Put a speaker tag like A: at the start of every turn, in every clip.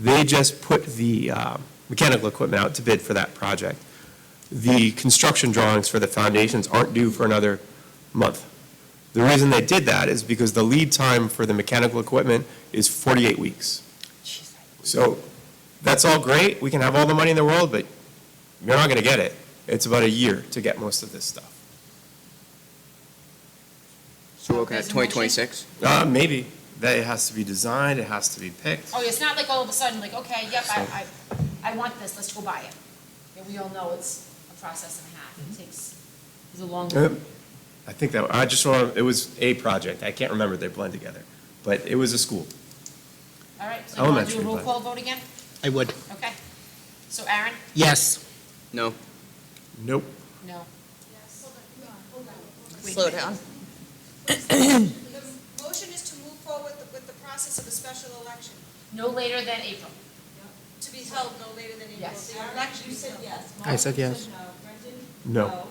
A: They just put the uh, mechanical equipment out to bid for that project. The construction drawings for the foundations aren't due for another month. The reason they did that is because the lead time for the mechanical equipment is 48 weeks. So that's all great, we can have all the money in the world, but you're not going to get it. It's about a year to get most of this stuff.
B: So we're looking at
C: There's a motion.
B: 2026?
A: Uh, Maybe, that it has to be designed, it has to be picked.
C: Oh, it's not like all of a sudden, like, okay, yep, I, I, I want this, let's go buy it. And we all know it's a process and a half, it takes, it's a long.
A: Yep. I think that, I just want, it was a project, I can't remember, they blend together, but it was a school.
C: All right, so you want to do
A: Elementary,
C: a roll
A: but-
C: call vote again?
D: I would.
C: Okay. So Aaron?
D: Yes.
B: No?
A: Nope.
C: No. Wait.
E: Slow down.
F: The motion is to move forward with the- with the process of a special election,
C: No later than April.
F: to be held no later than April.
C: Yes.
F: The election is held.
E: yes.
D: I said yes.
A: No.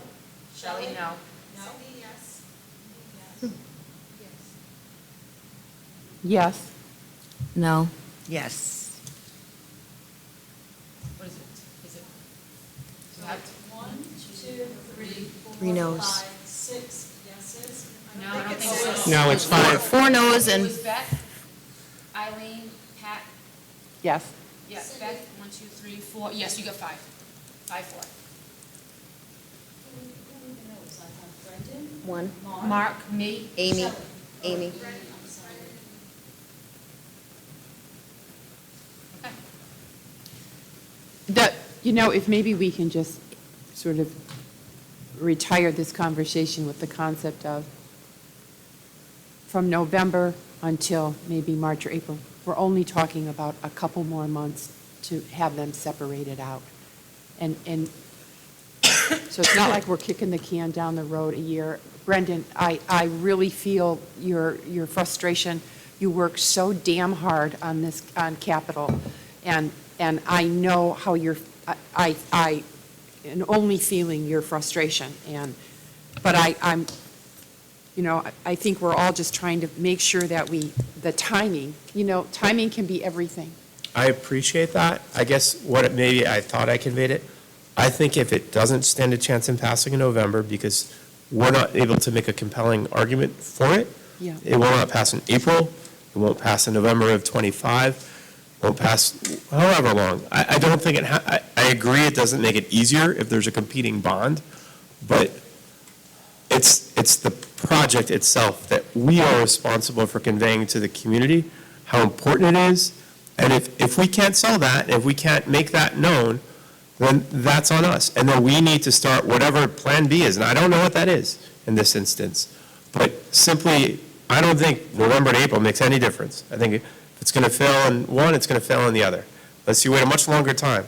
C: Shelley, no.
F: Cindy, yes.
C: Hmm.
E: Yes. No. Yes.
C: What is it? Is it? do you have-
E: Three no's.
C: No, I don't think so.
D: No, it's five.
E: Four no's
C: It
E: and.
C: was Beth, Eileen, Pat,
E: Yes.
C: yes, Beth, one, two, three, four, yes, you got five. Five, four.
E: One.
C: Mark, me,
E: Amy. Amy.
C: okay.
G: That, you know, if maybe we can just sort of retire this conversation with the concept of from November until maybe March or April, we're only talking about a couple more months to have them separated out. And, and so it's not like we're kicking the can down the road a year. Brendan, I, I really feel your, your frustration. You work so damn hard on this, on capital, and, and I know how you're, I- I, I am only feeling your frustration, and, but I, I'm, you know, I- I think we're all just trying to make sure that we, the timing, you know, timing can be everything.
A: I appreciate that. I guess what it, maybe I thought I conveyed it. I think if it doesn't stand a chance in passing in November because we're not able to make a compelling argument for it,
G: Yeah.
A: it will not pass in April, it won't pass in November of '25, won't pass however long. I, I don't think it, ha- I, I agree it doesn't make it easier if there's a competing bond, but it's, it's the project itself that we are responsible for conveying to the community, how important it is, and if, if we can't sell that, if we can't make that known, then that's on us. And then we need to start whatever Plan B is, and I don't know what that is in this instance. But simply, I don't think November to April makes any difference. I think if it's going to fail in one, it's going to fail in the other. Let's see, wait a much longer time.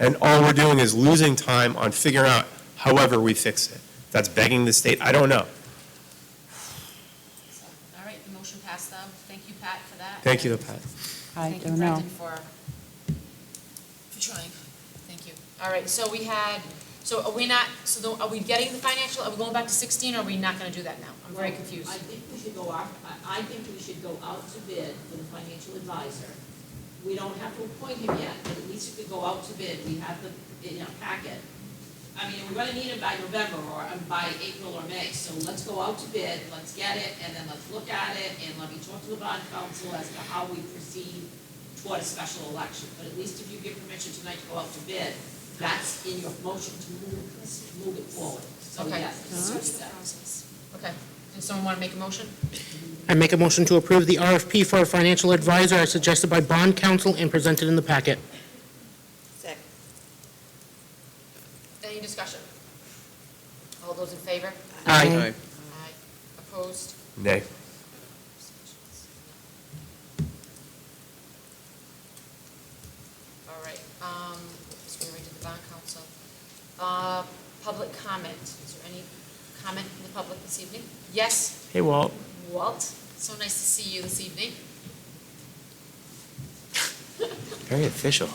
A: And all we're doing is losing time on figuring out however we fix it. If That's begging the state, I don't know.
C: So, All right, the motion passed, though. Thank you, Pat, for that.
A: Thank you, Pat.
G: I
C: Thank you,
G: don't know.
C: Brendan, for, for trying. Thank you. All right, so we had, so are we not, so the- are we getting the financial, are we going back to 16, or are we not going to do that now? I'm very confused.
H: I think we should go out, I, I think we should go out to bid with a financial advisor. We don't have to appoint him yet, but at least we could go out to bid, we have the, in our packet. I mean, we're gonna need him by November or um, by April or May, so let's go out to bid, let's get it, and then let's look at it, and let me talk to the bond council as to how we proceed toward a special election. But at least if you give permission tonight to go out to bid, that's in your motion to move, move it forward. So
C: Okay. Uh-huh.
H: yes, let's do that.
C: Okay, does someone want to make a motion?
D: I make a motion to approve the RFP for a financial advisor as suggested by bond counsel and presented in the packet.
E: Second.
C: Any discussion? All those in favor?
D: Aye.
C: Aye. Opposed?
A: Nay.
C: All right, um, so we already did the bond council. Uh, public comment, is there any comment from the public this evening? Yes,
A: Hey, Walt.
C: Walt, so nice to see you this evening.
A: Very official.